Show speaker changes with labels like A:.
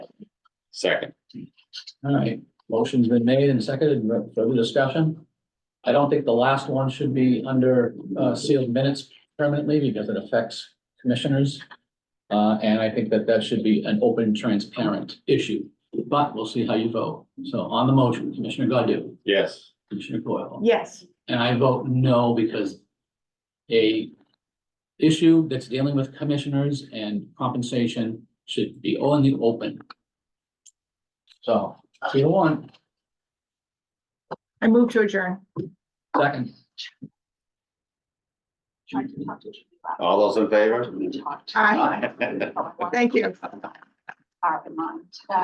A: Second.
B: All right, motion's been made and seconded, further discussion? I don't think the last one should be under uh, sealed minutes permanently because it affects commissioners. Uh, and I think that that should be an open, transparent issue, but we'll see how you vote. So on the motion, Commissioner Godu,
A: Yes.
B: Commissioner Coyle,
C: Yes,
B: and I vote no because a issue that's dealing with commissioners and compensation should be only open. So, three to one.
C: I move to adjourn.
B: Second.
A: All those in favor?
C: Aye. Thank
D: Thank
C: you.
D: you.